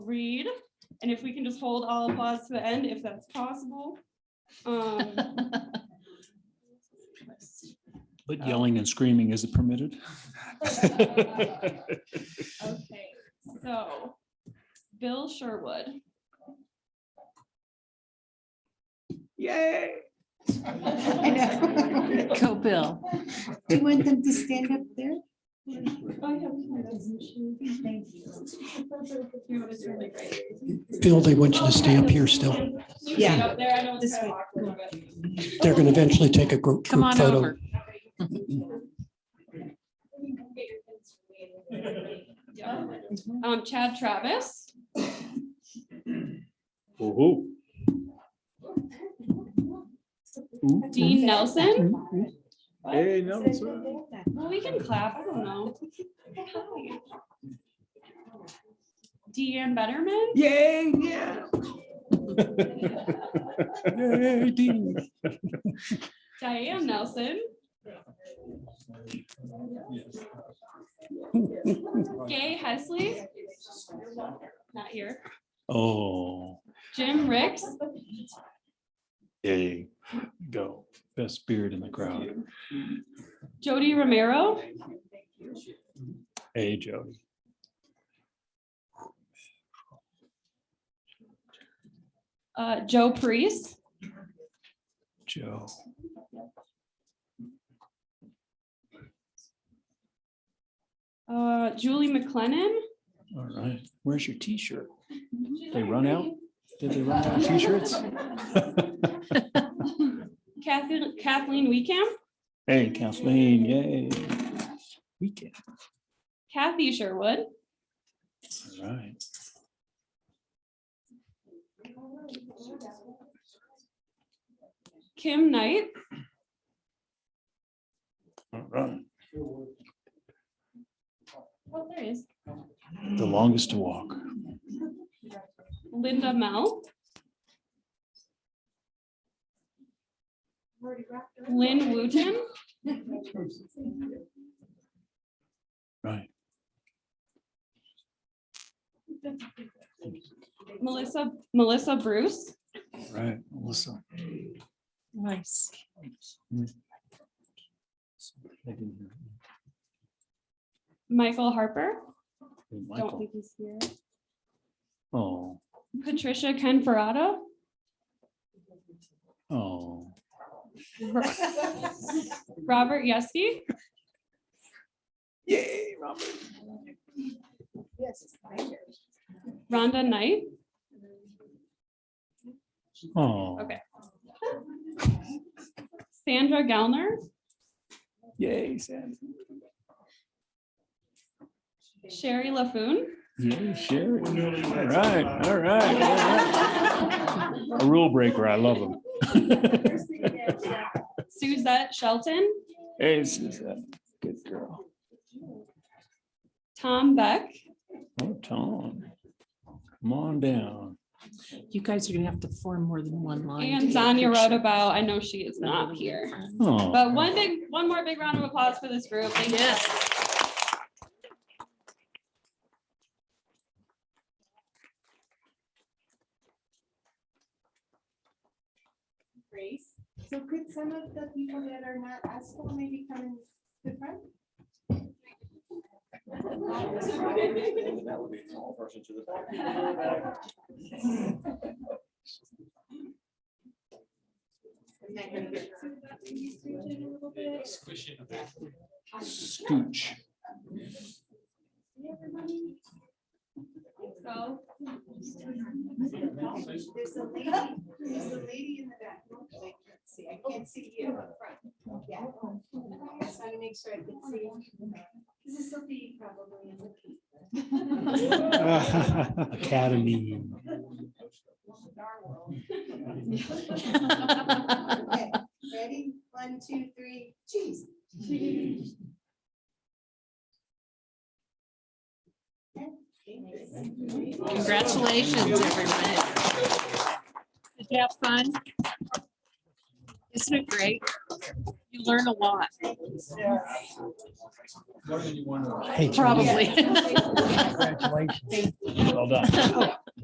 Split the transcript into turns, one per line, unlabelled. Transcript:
read, and if we can just hold all applause to the end, if that's possible. Um,
But yelling and screaming isn't permitted.
Okay, so Bill Sherwood.
Yay.
I know.
Go Bill.
Do you want them to stand up there? Thank you.
It's really great.
Bill, they want you to stay up here still.
Yeah.
Up there, I know it's
This
kind of
way.
awkward, but-
They're going to eventually take a group
Come
group
on
photo.
over.
Yeah. Um, Chad Travis,
Woo-hoo.
Dean Nelson.
Hey, no, it's all right.
Well, we can clap, I don't know. Deanne Betterman,
Yay, yeah.
Yay, Dean.
Diane Nelson. Gay Hesley. Not here.
Oh,
Jim Ricks,
there you go. Best beard in the crowd.
Jody Romero,
Hey, Jody.
uh, Joe Priest,
Joe.
uh, Julie McLennan.
All right. Where's your T-shirt? They run out? Did they run out of T-shirts?
Kathleen, Kathleen Weekamp,
Hey, Kathleen, yay. Weekend.
Kathy Sherwood,
All right.
Kim Knight,
All right.
oh, there he is.
The longest to walk.
Linda Mel. Lynn Wooten,
Right.
Melissa, Melissa Bruce,
Right. Melissa. Hmm.
Nice.
I didn't hear.
Michael Harper,
Hey,
don't
Michael.
think he's here,
Oh,
Patricia Canferrato,
oh.
Robert Yeske,
Yay, Robert.
Rhonda Knight,
Oh.
Okay. Sandra Gallner,
Yay, Sam.
Sherry LaFoon,
Yeah, Sherry. All right, all right. all right. A rule breaker. I love him.
Suzette Shelton,
Hey, Suzette. Good girl.
Tom Beck,
Oh, Tom. Come on down.
You guys are gonna have to form more than one line.
and Zanya Rodabow. I know she is not here.
Oh.
But one big, one more big round of applause for this group. Thank you.
Grace, so could some of the people that are not at school maybe come in the front?
Scooch.
So,
There's a lady, there's a lady in the back. Oh, I can't See, I can't see you up front. Yeah. I just want to make sure I can see. This is Sophie probably.
Academy.
Okay, Ready? One, two, three, cheese.
Congratulations, everyone. Did you have fun? Isn't it great? You
learn a lot,
Hey, Julie.
probably.
Congratulations.
Well done.